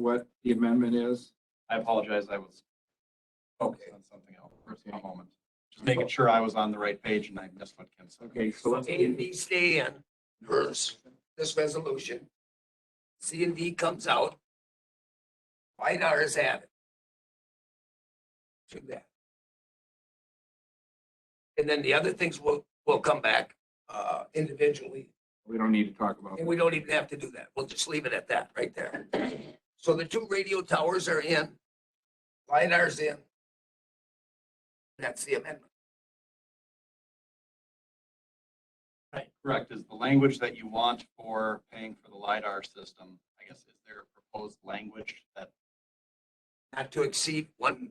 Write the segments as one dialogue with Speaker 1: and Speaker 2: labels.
Speaker 1: what the amendment is?
Speaker 2: I apologize, I was
Speaker 3: Okay,
Speaker 2: on something else for a moment. Just making sure I was on the right page and I missed what Kim said.
Speaker 1: Okay, so
Speaker 3: so
Speaker 1: let's,
Speaker 3: A and B stay in, hers, this resolution. C and D comes out. White R is added. To that. And then the other things will, will come back, uh, individually
Speaker 1: we don't need to talk about.
Speaker 3: And we don't even have to do that. We'll just leave it at that right there. So the two radio towers are in. LiDAR's in. That's the amendment.
Speaker 2: Correct, is the language that you want for paying for the LiDAR system, I guess, is there a proposed language that,
Speaker 3: Not to exceed one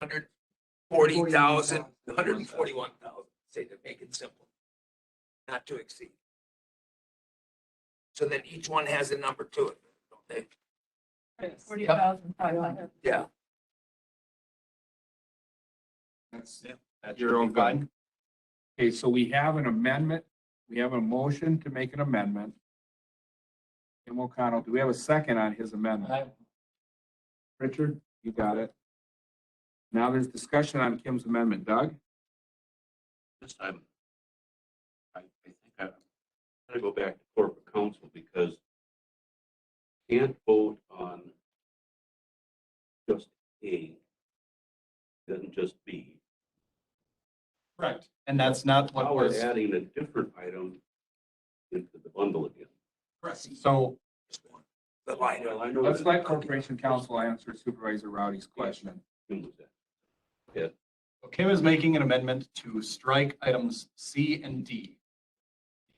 Speaker 3: hundred forty thousand, one hundred and forty-one thousand, say to make it simple. Not to exceed. So then each one has a number to it, don't they?
Speaker 4: Forty thousand five hundred.
Speaker 3: Yeah,
Speaker 1: That's-
Speaker 2: that
Speaker 1: Your
Speaker 2: you're
Speaker 1: own
Speaker 2: fine?
Speaker 1: Okay, so we have an amendment, we have a motion to make an amendment. Tim O'Connell, do we have a second on his amendment? Richard, you got it. Now there's discussion on Kim's amendment. Doug?
Speaker 5: This time, I, I think I'm gonna go back to corporate counsel because can't vote on just A, doesn't just B.
Speaker 2: Correct, and that's not what
Speaker 5: Now we're
Speaker 2: was,
Speaker 5: adding a different item into the bundle again.
Speaker 2: so
Speaker 3: just one. The LiDAR.
Speaker 5: Well, I know
Speaker 1: Let's
Speaker 5: that-
Speaker 1: let Corporation Counsel answer Supervisor Rowdy's question.
Speaker 5: Kim was at.
Speaker 2: Kim is making an amendment to strike items C and D.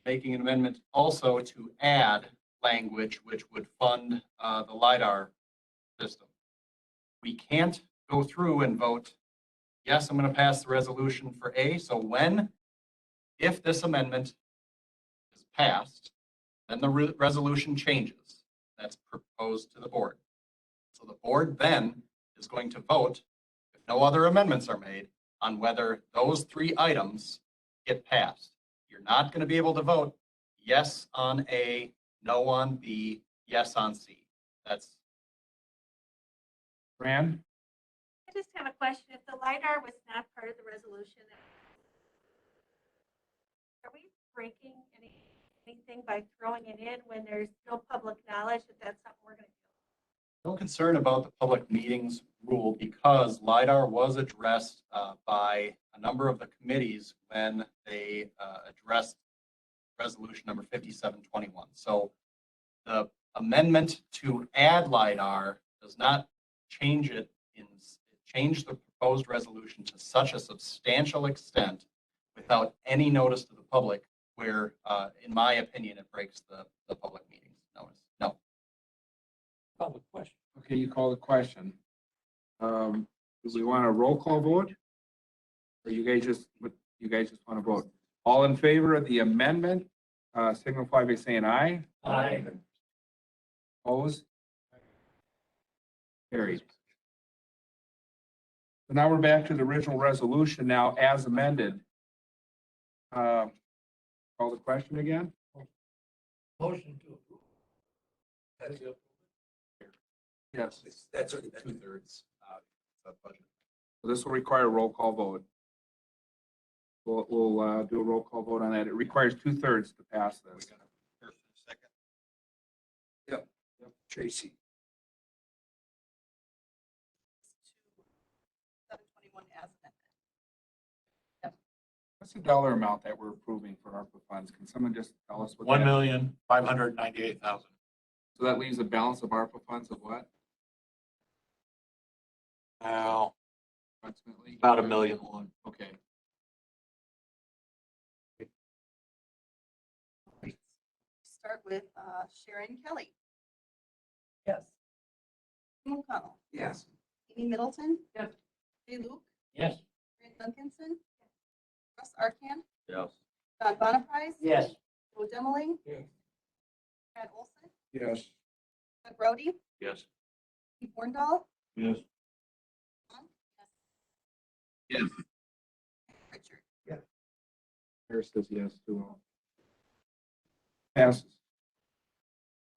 Speaker 2: Making an amendment also to add language which would fund uh, the LiDAR system. We can't go through and vote, yes, I'm going to pass the resolution for A. So when, if this amendment is passed, then the re- resolution changes. That's proposed to the board. So the board then is going to vote, if no other amendments are made, on whether those three items get passed. You're not going to be able to vote yes on A, no on B, yes on C. That's,
Speaker 1: Fran?
Speaker 6: I just have a question. If the LiDAR was not part of the resolution, are we breaking any- anything by throwing it in when there's no public knowledge that that's something we're going to do?
Speaker 2: no concern about the public meetings rule because LiDAR was addressed uh, by a number of the committees when they uh, addressed resolution number 5721. So the amendment to add LiDAR does not change it in, change the proposed resolution to such a substantial extent without any notice to the public where, uh, in my opinion, it breaks the, the public meetings notice. No.
Speaker 3: Public question.
Speaker 1: Okay, you call the question. Um, do we want a roll call vote? Or you guys just, what, you guys just want to vote? All in favor of the amendment, uh, signify by saying aye.
Speaker 3: Aye.
Speaker 1: Opposed? Carried. So now we're back to the original resolution now as amended. Uh, call the question again?
Speaker 3: Motion to approve. That's it.
Speaker 1: Yes.
Speaker 3: That's already been.
Speaker 2: two-thirds uh, of budget.
Speaker 1: This will require a roll call vote. We'll, we'll, uh, do a roll call vote on that. It requires two thirds to pass
Speaker 2: We
Speaker 1: this.
Speaker 2: got a first and a second.
Speaker 3: Tracy.
Speaker 4: Seven twenty-one as amended.
Speaker 1: What's the dollar amount that we're approving for ARPA funds? Can someone just tell us what?
Speaker 7: One
Speaker 1: that-
Speaker 7: million, five hundred ninety-eight thousand.
Speaker 1: So that leaves a balance of ARPA funds of what
Speaker 7: Now,
Speaker 1: approximately?
Speaker 7: about a million one.
Speaker 1: Okay.
Speaker 4: Start with uh, Sharon Kelly,
Speaker 8: Yes.
Speaker 4: Kim O'Connell,
Speaker 3: Yes.
Speaker 4: Amy Middleton.
Speaker 8: Yes.
Speaker 4: Jay Luke,
Speaker 8: Yes.
Speaker 4: Grant Duncanson, Russ Arcan,
Speaker 5: Yes.
Speaker 4: John Bonaprise.
Speaker 8: Yes.
Speaker 4: Joe Demmeling.
Speaker 3: Yes.
Speaker 4: Brad Olson,
Speaker 1: Yes.
Speaker 4: Doug Brody,
Speaker 5: Yes.
Speaker 4: Steve Borndahl,
Speaker 5: Yes.
Speaker 4: Richard.
Speaker 1: Harris says yes to all. Passes.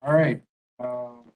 Speaker 1: All right, um,